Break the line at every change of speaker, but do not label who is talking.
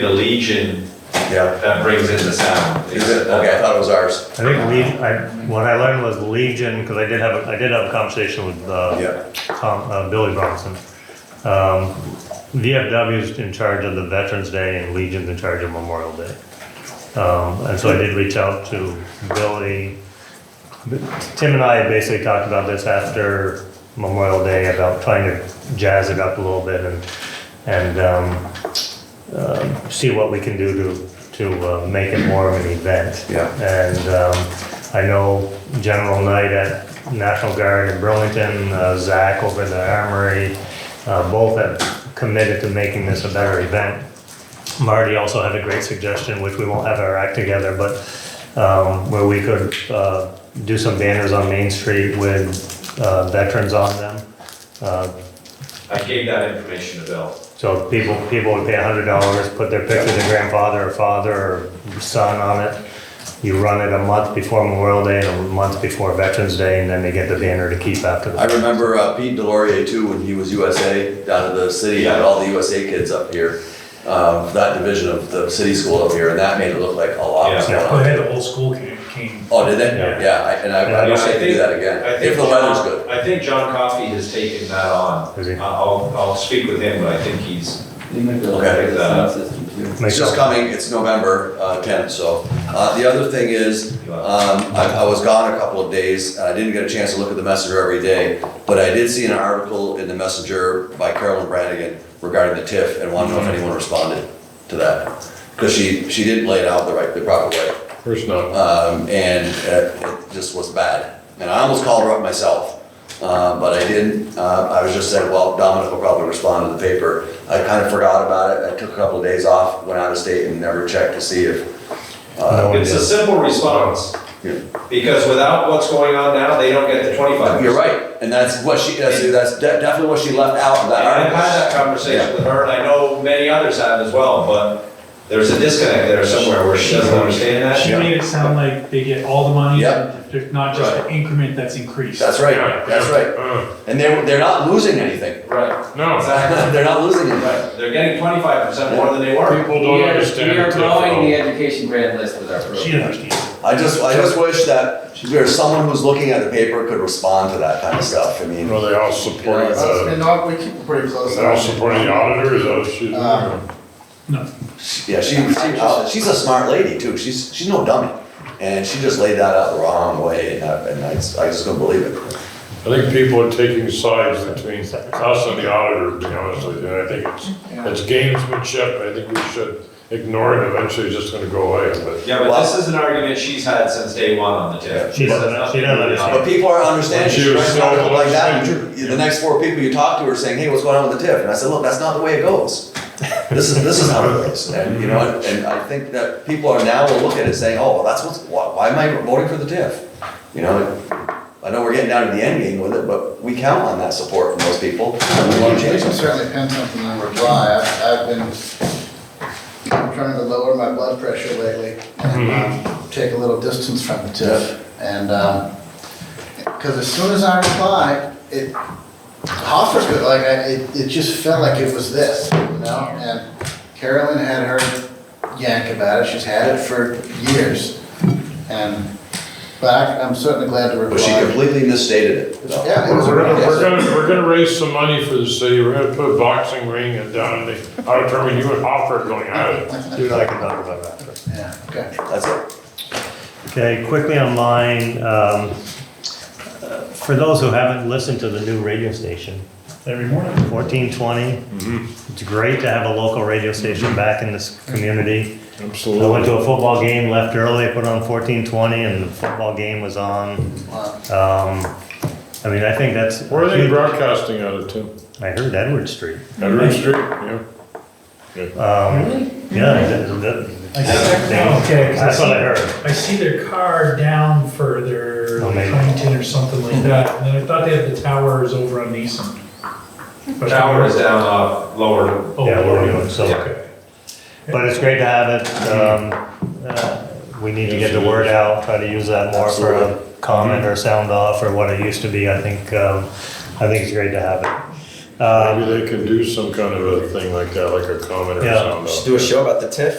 The Legion
Yeah.
that brings in the sound.
Is it? Okay, I thought it was ours.
I think Legion, I, what I learned was Legion, because I did have, a- I did have a conversation with, uh,
Yeah.
Tom, uh, Billy Bronson. Um, VFW's in charge of the Veterans Day and Legion's in charge of Memorial Day. Um, and so I did reach out to Billy. Tim and I basically talked about this after Memorial Day, about trying to jazz it up a little bit and, and, um, um, see what we can do to, to uh, make it more of an event.
Yeah.
And um, I know General Knight at National Guard in Burlington, uh, Zach over at the Armory, uh, both have committed to making this a better event. Marty also had a great suggestion, which we won't have our act together, but um, where we could uh, do some banners on Main Street with uh, veterans on them. Uh,
I gave that information to Bill.
so people, people would pay a hundred dollars, put their picture of their grandfather or father or son on it. You run it a month before Memorial Day and a month before Veterans Day, and then they get the banner to keep after
I
that.
remember uh, Pete Delorier too, when he was USA down in the city, had all the USA kids up here. Um, that division of the city school up here, and that made it look like a lot was
Yeah.
going
Oh,
on.
they had the whole school came, came.
Oh, did they?
Yeah.
Yeah, I- and I, I
Yeah,
wish I
I
could do
think-
that again,
I
if
think
the weather's
John-
good.
I think John Coffey has taken that on.
Has he?
I- I'll, I'll speak with him, but I think he's,
You might be able to
Okay.
fix that system too.
It's just
Myself.
coming, it's November uh, 10th, so. Uh, The other thing is, um, I I was gone a couple of days, and I didn't get a chance to look at the Messenger every day, but I did see an article in the Messenger by Carolyn Brannigan regarding the TIF, and wanted to know if anyone responded to that. Because she, she didn't lay it out the right, the proper way.
There's none.
um, and uh, it just was bad. And I almost called her up myself, uh, but I didn't. Uh, I was just saying, well, Dominic will probably respond to the paper. I kind of forgot about it. I took a couple of days off, went out of state, and never checked to see if.
No one
it's a
did.
simple response.
Yeah.
Because without what's going on now, they don't get the twenty-five.
You're right, and that's what she. That's, that's de- definitely what she left out of that
And I've
article.
had that conversation with her, and I know many others have as well, but there's a disconnect there somewhere where she doesn't understand that.
She made it sound like they get all the money,
Yeah.
there's not just the increment that's increased.
That's right. That's right.
Mm.
And they are they're not losing anything.
Right,
No,
exactly.
they're not losing anything.
Right, they're getting twenty-five percent more than they were.
people
We
don't
are-
understand.
We are
the
growing the
TIF at
education grant list with our
She
program.
didn't understand.
I just I just wish that there's someone who's looking at the paper could respond to that kind of stuff. I mean.
all. Well, they all support,
Uh,
the
And all- we keep it pretty close.
they all support the auditors, those shoes.
Um,
No,
Yeah, she, she uh, she's a smart lady too. She's she's no dummy, and she just laid that out the wrong way, and I, and I, just- I just couldn't believe it.
I think people are taking sides between us and the auditor, to be honest with you, and I think it's, it's gamesmanship, I think we should ignore it, eventually it's just gonna go away, but.
Yeah, but this is an argument she's had since day one on the tip.
She doesn't- she doesn't understand.
But people aren't understanding.
She
She
was
writes an
so
article like that,
upset.
and you- the next four people you talk to are saying, "Hey, what's going on with the TIF?" And I said, "Look, that's not the way it goes. This is this is how it goes." And you know, and, and I think that people are now will look at it saying, "Oh, well, that's what's why, why am I voting for the TIF?" You know. I know we're getting down to the end game with it, but we count on that support from those people. and We want to
We
change
can
it.
certainly pin something on July. I've, I've been trying to lower my blood pressure lately and um, take a little distance from the TIF. And, um 'cause because as soon as I replied, it, Hoffa's good, like, I- it, it just felt like it was this, you know? And Carolyn had her yank about it. She's had it for years. And, but I- I'm certainly glad to reply.
But she completely misstated it. though.
Yeah, it was a
We're gonna,
real-
we're gonna, we're gonna raise some money for the city, we're gonna put a boxing ring and down in the auditorium, you and Hoffer are going at it.
Dude, I can talk about that.
Yeah, okay.
That's it.
Okay, quickly on mine, um, uh, for those who haven't listened to the new radio station,
every morning.
1420,
Mm-hmm.
it's great to have a local radio station back in this community. I went
Absolutely.
to a football game, left early, put on 1420, and the football game was on.
Wow.
Um, I mean, I think that's.
Where are they broadcasting out of, Tim?
I heard Edward Street.
Edward Street, yeah.
Um, yeah, that- that-
Okay, 'cause I
that's what I
see,
heard.
I see their car down further,
Oh, maybe.
Huntington or something like that, and then I thought they had the towers over on Neeson.
The Tower is down, uh, lower.
Oh,
Yeah, we're doing so.
Okay.
But it's great to have it. Um, uh, we need to get the word out, try to use that more for a comment or sound off or what it used to be. I think, um, I think it's great to have it.
Um,
Maybe they can do some kind of a thing like that, like a comment or
Yeah.
something.
Should do a show about the TIF.